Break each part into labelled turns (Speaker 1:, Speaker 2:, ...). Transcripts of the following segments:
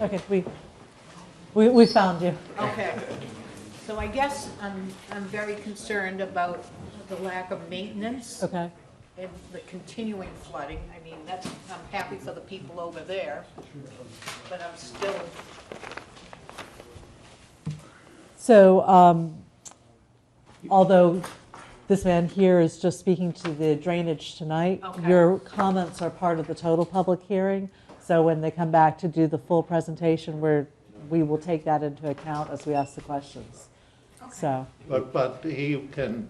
Speaker 1: Okay, we, we, we found you.
Speaker 2: Okay. So I guess I'm, I'm very concerned about the lack of maintenance
Speaker 1: Okay,
Speaker 2: and the continuing flooding. I mean, that's, I'm happy for the people over there, but I'm still,
Speaker 1: so um, although this man here is just speaking to the drainage tonight,
Speaker 2: Okay.
Speaker 1: your comments are part of the total public hearing. So when they come back to do the full presentation, we're, we will take that into account as we ask the questions. So,
Speaker 3: But, but he can,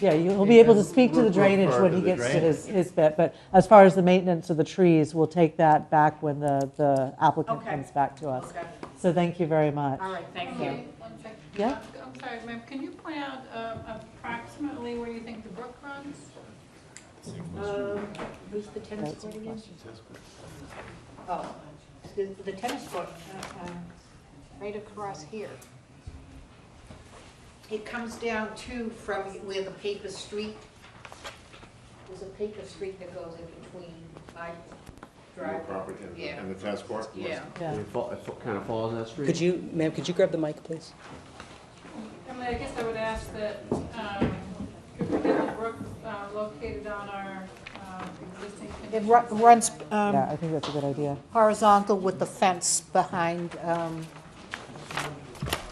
Speaker 1: yeah, you'll be able to speak to the
Speaker 3: We're- we're
Speaker 1: drainage
Speaker 3: part
Speaker 1: when
Speaker 3: of
Speaker 1: he
Speaker 3: the
Speaker 1: gets to his, his bit. But as far as the maintenance of the trees, we'll take that back when the, the applicant
Speaker 2: Okay.
Speaker 1: comes back to us.
Speaker 2: okay,
Speaker 1: So thank you very much.
Speaker 2: all right, thank you.
Speaker 4: Okay, one sec. Uh,
Speaker 1: Yeah.
Speaker 4: I'm sorry, ma'am, can you point out um, approximately where you think the brook runs?
Speaker 2: Who's Um, the tennis
Speaker 1: That's court your again? question.
Speaker 2: Oh, the the tennis court, uh, uh, right across here. It comes down to from where the paper street, there's a paper street that goes in between my
Speaker 5: Your
Speaker 2: driveway.
Speaker 5: property and the-
Speaker 2: Yeah.
Speaker 5: and the tennis court?
Speaker 2: Yeah.
Speaker 1: Yeah.
Speaker 6: It kind of falls in that street.
Speaker 7: Could you, ma'am, could you grab the mic, please?
Speaker 4: I mean, I guess I would ask that, um, if we get the brook uh, located on our um, existing.
Speaker 2: It ru- runs um,
Speaker 1: Yeah, I think that's a good idea.
Speaker 2: horizontal with the fence behind um,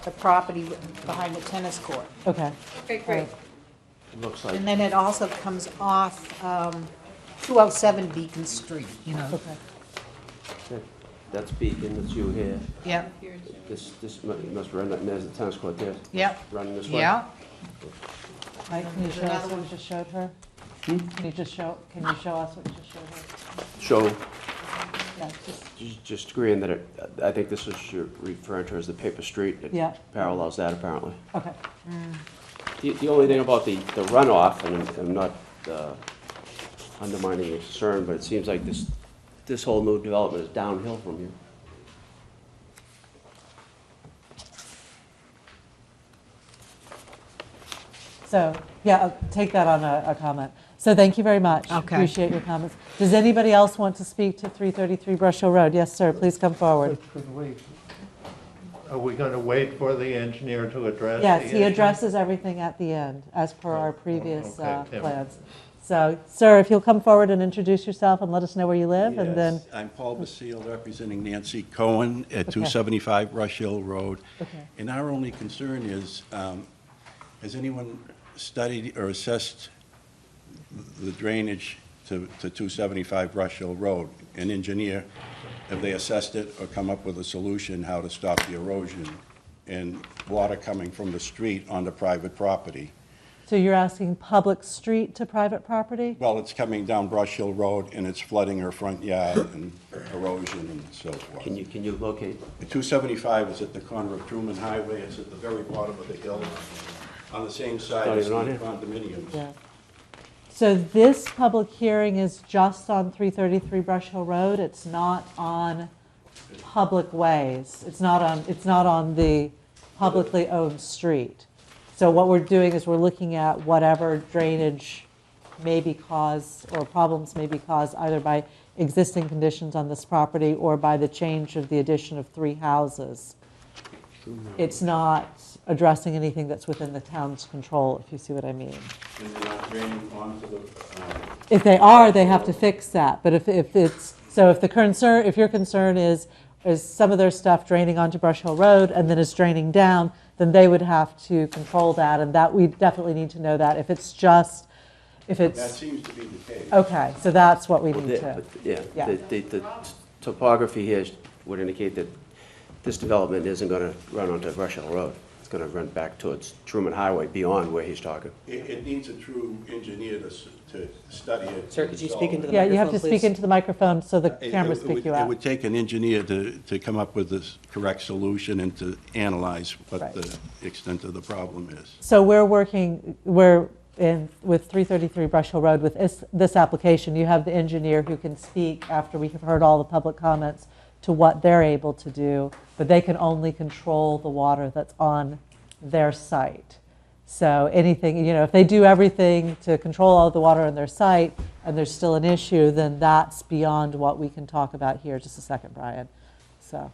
Speaker 2: the property, behind the tennis court.
Speaker 1: Okay,
Speaker 4: Okay, great.
Speaker 6: Looks like,
Speaker 2: And then it also comes off um, 207 Beacon Street, you know.
Speaker 1: okay.
Speaker 6: that- that's Beacon, that's you here.
Speaker 2: Yep,
Speaker 4: Here's your-
Speaker 6: This, this mu- must run, that- there's the tennis court there.
Speaker 2: Yep.
Speaker 6: Running this way.
Speaker 2: yeah.
Speaker 1: Mike, can you
Speaker 2: There's
Speaker 1: show us
Speaker 2: another
Speaker 1: what
Speaker 2: one.
Speaker 1: you just showed her? Can you just show, can you show us what you just showed her?
Speaker 6: So,
Speaker 1: Yeah, just-
Speaker 6: ju- just agreeing that it, I think this is you're referring to as the paper street. It
Speaker 1: Yeah.
Speaker 6: Parallels that apparently.
Speaker 1: Okay,
Speaker 6: The, the only thing about the, the runoff, and I'm- I'm not uh, undermining your concern, but it seems like this, this whole new development is downhill from you.
Speaker 1: so, yeah, I'll take that on a, a comment. So thank you very much.
Speaker 2: Okay.
Speaker 1: Appreciate your comments. Does anybody else want to speak to 333 Brush Hill Road? Yes, sir, please come forward.
Speaker 3: could we, are we going to wait for the engineer to address?
Speaker 1: Yes,
Speaker 3: the
Speaker 1: he
Speaker 3: issue? Oh,
Speaker 1: addresses everything at the end, as per our previous
Speaker 3: okay,
Speaker 1: uh,
Speaker 3: Tim.
Speaker 1: plans. So, sir, if you'll come forward and introduce yourself and let us know where you live, and then,
Speaker 8: Yes, I'm Paul Basile, representing Nancy Cohen at 275 Rush Hill Road.
Speaker 1: Okay.
Speaker 8: And our only concern is, um, has anyone studied or assessed the drainage to to 275 Rush Hill Road? An engineer, have they assessed it or come up with a solution how to stop the erosion and water coming from the street onto private property?
Speaker 1: so you're asking public street to private property?
Speaker 8: Well, it's coming down Brush Hill Road, and it's flooding her front yard and erosion and so forth.
Speaker 6: Can you, can you locate?
Speaker 8: The 275 is at the corner of Truman Highway, it's at the very bottom of the hill, on the same side
Speaker 6: Not
Speaker 8: as the
Speaker 6: even on here.
Speaker 8: condominiums.
Speaker 1: Yeah. So this public hearing is just on 333 Brush Hill Road? It's not on public ways? It's not on, it's not on the publicly owned street? So what we're doing is we're looking at whatever drainage may be caused, or problems may be caused either by existing conditions on this property or by the change of the addition of three houses. It's not addressing anything that's within the town's control, if you see what I mean.
Speaker 8: And they're not draining onto the, um,
Speaker 1: If they are, they have to fix that, but if, if it's, so if the concern, if your concern is, is some of their stuff draining onto Brush Hill Road and then it's draining down, then they would have to control that, and that, we definitely need to know that, if it's just, if
Speaker 8: that
Speaker 1: it's, Oh.
Speaker 8: seems to be the case.
Speaker 1: okay, so that's what we
Speaker 6: Well,
Speaker 1: need
Speaker 6: the-
Speaker 1: to,
Speaker 6: but, Yeah,
Speaker 1: Yeah.
Speaker 6: the- the, the topography here would indicate that this development isn't gonna run onto Rush Hill Road. It's gonna run back towards Truman Highway beyond where he's talking.
Speaker 8: It, it needs a true engineer to, s- to study it.
Speaker 7: Sir, could you speak
Speaker 8: and solve
Speaker 7: into
Speaker 8: it.
Speaker 7: the
Speaker 1: yeah, you have to
Speaker 7: microphone,
Speaker 1: speak
Speaker 7: please?
Speaker 1: into the microphone so the
Speaker 8: It- it
Speaker 1: cameras
Speaker 8: would-
Speaker 1: pick you
Speaker 8: It
Speaker 1: out.
Speaker 8: would take an engineer to, to come up with the correct solution and to analyze
Speaker 1: Right.
Speaker 8: what the extent of the problem is.
Speaker 1: So we're working, we're in, with 333 Brush Hill Road with this, this application. You have the engineer who can speak after we have heard all the public comments to what they're able to do, but they can only control the water that's on their site. So anything, you know, if they do everything to control all the water on their site and there's still an issue, then that's beyond what we can talk about here. Just a second, Brian. So,